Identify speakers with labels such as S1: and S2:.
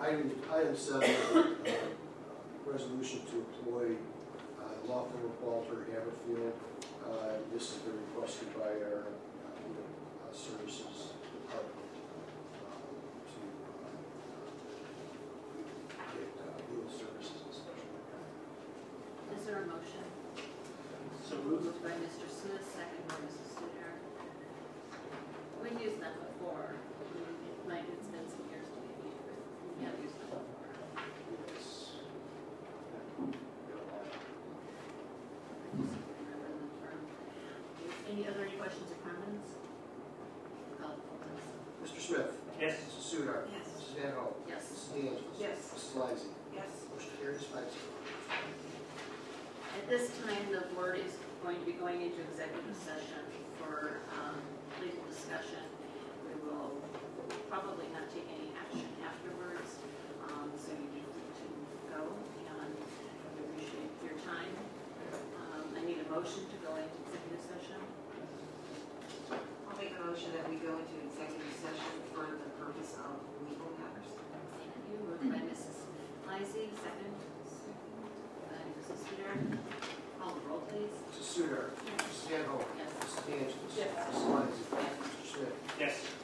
S1: Item, item seven, is a, uh, resolution to employ uh, law firm of Walter Haverfield. Uh, This has been requested by our uh, Human uh, Services Department um, to uh, get uh, legal services and special.
S2: Is there a motion?
S3: So moved.
S2: Moved by Mr. Smith, second by Mrs. Sudar. We've used them before. It might, it's been some years maybe. but We have used them before.
S1: Yes.
S2: Remember the term. Any other questions or comments? Call the roll, please.
S1: Mr. Smith?
S3: Yes.
S1: Mrs. Sudar?
S2: Yes.
S1: Mrs. Van Hoen?
S2: Yes.
S1: Mrs. DeAngelis?
S2: Yes.
S1: Mrs. Lysy?
S2: Yes.
S1: Motion carries five zero.
S2: At this time, the board is going to be going into executive session for um, legal discussion. We will probably not take any action afterwards, um, so you do need to go, and we appreciate your time. Um, I need a motion to go into executive session.
S4: I'll make a motion that we go into executive session for the purpose of legal matters.
S2: Thank you, moved by Mrs. Lysy, second. By Mrs. Sudar. Call the roll, please.
S1: Mrs. Sudar? Mrs. Van Hoen?
S2: Yes.
S1: Mrs. DeAngelis?
S2: Yes.
S1: Mrs. Lysy? Mr. Smith?
S3: Yes.